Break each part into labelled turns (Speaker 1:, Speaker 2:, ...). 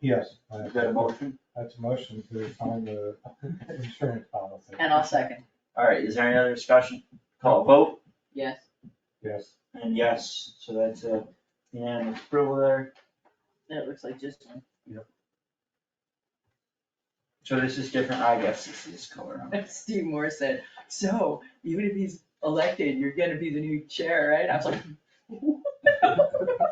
Speaker 1: Yes.
Speaker 2: Is that a motion?
Speaker 1: That's a motion to find the insurance policy.
Speaker 3: And I'll second,
Speaker 2: All right, is there any other discussion? Call a vote,
Speaker 3: yes.
Speaker 1: Yes,
Speaker 2: and yes, so that's a unanimous approval there.
Speaker 3: That looks like just one.
Speaker 2: So this is different, I guess this is color. on.
Speaker 3: Steve Moore said, so even if he's elected, you're gonna be the new chair, right? I was like. "No."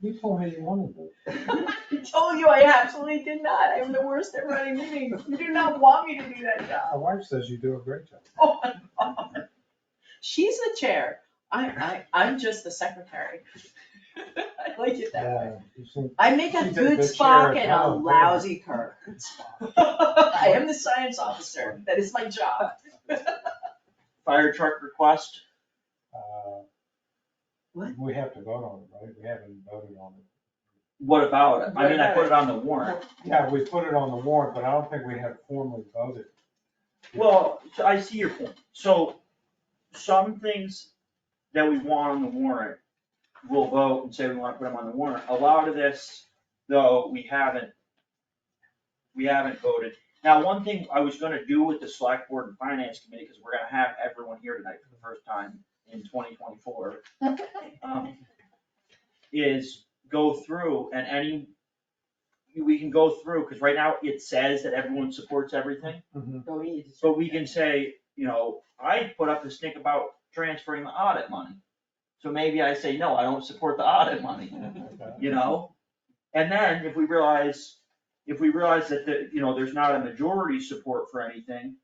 Speaker 1: you told me you wanted it.
Speaker 3: I told you I absolutely did not. I'm the worst at running meetings. You do not want me to do that job.
Speaker 1: My wife says you do a great job.
Speaker 3: Oh my God. She's the chair. I, I, I'm just the secretary. I like it that way.
Speaker 1: Yeah, you seem-
Speaker 3: I make a
Speaker 1: She's the-
Speaker 3: good
Speaker 1: the chair
Speaker 3: Spock
Speaker 1: at
Speaker 3: and a
Speaker 1: home.
Speaker 3: lousy Kirk. I am the science officer. That is my job.
Speaker 2: Fire truck request,
Speaker 1: uh,
Speaker 3: What?
Speaker 1: We have to vote on it, right? We haven't voted on it.
Speaker 2: what about it? I mean, I put it on the warrant.
Speaker 1: Yeah, we put it on the warrant, but I don't think we have formally voted.
Speaker 2: Well, so I see your point, so some things that we want on the warrant, we'll vote and say we wanna put them on the warrant, a lot of this, though, we haven't. We haven't voted, now, one thing I was gonna do with the select board and finance committee, cause we're gonna have everyone here tonight for the first time in twenty twenty-four. um, Is go through and any, we can go through, cause right now it says that everyone supports everything.
Speaker 1: Mm-hmm.
Speaker 3: Go eat.
Speaker 2: So we can say, you know, I put up this thing about transferring the audit money. So maybe I say, no, I don't support the audit money, you know? And then if we realize, if we realize that the, you know, there's not a majority support for anything,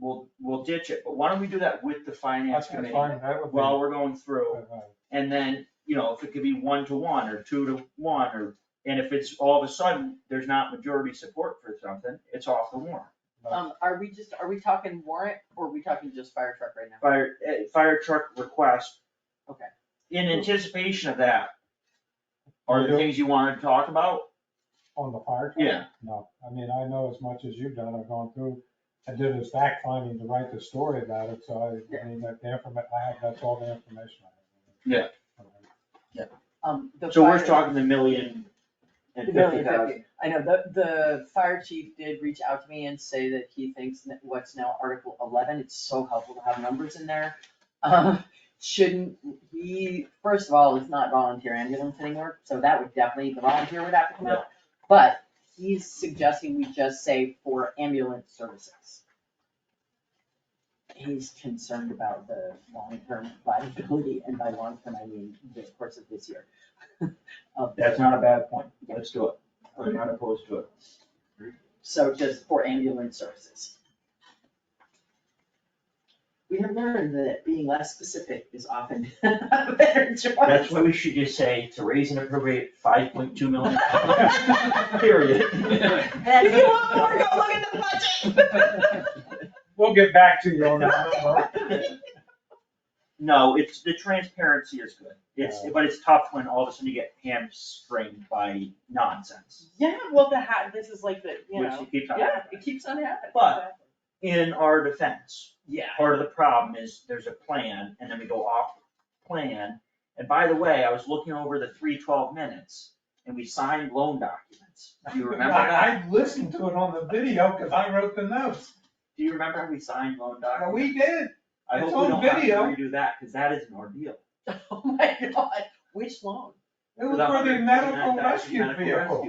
Speaker 2: we'll, we'll ditch it, but why don't we do that with the finance
Speaker 1: That's
Speaker 2: committee?
Speaker 1: fine, that would be.
Speaker 2: While we're going through,
Speaker 1: Uh,
Speaker 2: and then, you know, if it could be one to one or two to one or, and if it's all of a sudden, there's not majority support for something, it's off the warrant.
Speaker 1: Uh-huh.
Speaker 3: Um, are we just, are we talking warrant or are we talking just fire truck right now?
Speaker 2: fire, eh, fire truck request.
Speaker 3: Okay.
Speaker 2: In anticipation of that, are
Speaker 1: Yeah.
Speaker 2: there things you wanna talk about?
Speaker 1: On the fire truck?
Speaker 2: Yeah.
Speaker 1: No, I mean, I know as much as you've done, I've gone through, I did this fact finding to write the story about it, so I, I mean, that the informa, I have, that's all the information I have. Yeah.
Speaker 3: Um, the
Speaker 2: So we're
Speaker 3: fire-
Speaker 2: talking the million and fifty
Speaker 3: The million
Speaker 2: thousand.
Speaker 3: fifty. I know, the, the fire chief did reach out to me and say that he thinks that what's now Article eleven, it's so helpful to have numbers in there. Um, shouldn't, he, first of all, is not volunteer ambulance anymore, so that would definitely, the volunteer would have to come out. But he's suggesting we just say for ambulance services. He's concerned about the long-term viability, and by long-term, I mean the course of this year. Of the-
Speaker 2: That's not a bad point, let's do it, I'm not opposed to it.
Speaker 3: So just for ambulance services. We have learned that being less specific is often a better choice.
Speaker 2: That's why we should just say to raise and appropriate five point two million, period.
Speaker 3: If you want more, go look at the budget.
Speaker 1: We'll get back to you on that number.
Speaker 2: No, it's, the transparency is good, it's, but it's tough when all of a sudden you get hamstringed by nonsense,
Speaker 3: Yeah, well, the hat, this is like the, you
Speaker 2: which
Speaker 3: know,
Speaker 2: you keep talking
Speaker 3: yeah,
Speaker 2: about.
Speaker 3: it keeps on happening.
Speaker 2: But- In our defense,
Speaker 3: Yeah.
Speaker 2: part of the problem is there's a plan and then we go off plan. And by the way, I was looking over the three twelve minutes and we signed loan documents. Do you remember that?
Speaker 1: I I listened to it on the video, cause I wrote the notes,
Speaker 2: Do you remember how we signed loan
Speaker 1: and
Speaker 2: documents?
Speaker 1: we did,
Speaker 2: I
Speaker 1: it's
Speaker 2: hope
Speaker 1: on
Speaker 2: we don't have to
Speaker 1: video.
Speaker 2: redo that, cause that is an ordeal.
Speaker 3: Oh my God, which loan?
Speaker 1: it was for the medical rescue vehicle.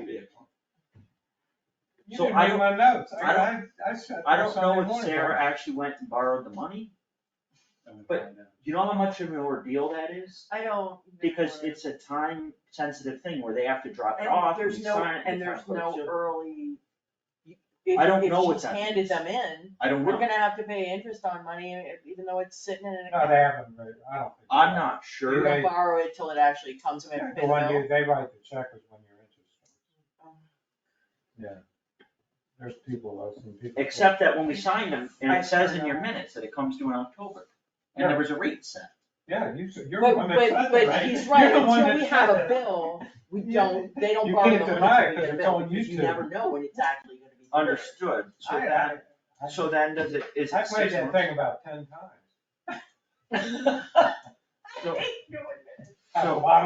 Speaker 1: You
Speaker 2: So
Speaker 1: didn't
Speaker 2: I
Speaker 1: read
Speaker 2: don't-
Speaker 1: my notes,
Speaker 2: I
Speaker 1: I,
Speaker 2: don't-
Speaker 1: I, I said.
Speaker 2: I don't know
Speaker 1: Sunday
Speaker 2: if
Speaker 1: morning.
Speaker 2: Sarah actually went and borrowed the money. but- Do you know how much of an ordeal that is?
Speaker 3: I don't.
Speaker 2: Because it's a time sensitive thing where they have to drop it
Speaker 3: And
Speaker 2: off.
Speaker 3: there's
Speaker 2: we
Speaker 3: no,
Speaker 2: sign it, we
Speaker 3: and there's
Speaker 2: sign it.
Speaker 3: no
Speaker 2: So
Speaker 1: er-
Speaker 3: early.
Speaker 2: I don't know
Speaker 3: what
Speaker 2: what's happening.
Speaker 3: handed them in.
Speaker 2: I don't
Speaker 3: We're
Speaker 2: know.
Speaker 3: gonna have to pay interest on money, e- even though it's sitting in an
Speaker 1: No,
Speaker 3: account.
Speaker 1: they haven't, read it. I don't think.
Speaker 2: I'm not sure.
Speaker 3: We're gonna
Speaker 1: Right.
Speaker 3: borrow it till it actually comes in and
Speaker 1: The
Speaker 3: pays
Speaker 1: one
Speaker 3: out.
Speaker 1: you, they write the check is when you're interested.
Speaker 3: Oh.
Speaker 1: Yeah. There's people, I've seen people.
Speaker 2: Except that when we signed them, and
Speaker 3: I
Speaker 2: it says in
Speaker 3: don't
Speaker 2: your
Speaker 3: know.
Speaker 2: minutes that it comes due in October, and there was a rate set.
Speaker 1: Yeah, you, s- you're the
Speaker 3: But,
Speaker 1: one that said it,
Speaker 3: but,
Speaker 1: right?
Speaker 3: but he's
Speaker 1: You're
Speaker 3: right,
Speaker 1: the one
Speaker 3: until
Speaker 1: that
Speaker 3: we have
Speaker 1: said
Speaker 3: a
Speaker 1: it.
Speaker 3: bill, we
Speaker 1: You-
Speaker 3: don't, they don't
Speaker 1: you
Speaker 3: borrow the
Speaker 1: can't
Speaker 3: money
Speaker 1: deny it 'cause
Speaker 3: till we get a
Speaker 1: it's
Speaker 3: bill,
Speaker 1: on
Speaker 3: because you
Speaker 1: YouTube.
Speaker 3: never know when it's actually gonna be. delivered.
Speaker 2: Understood, so
Speaker 1: I- I-
Speaker 2: that,
Speaker 1: I-
Speaker 2: so then does it, is
Speaker 1: I
Speaker 2: it
Speaker 1: played
Speaker 2: six
Speaker 1: that
Speaker 2: months?
Speaker 1: thing about ten times.
Speaker 3: I
Speaker 2: So-
Speaker 3: hate doing this.
Speaker 2: So-
Speaker 1: A lot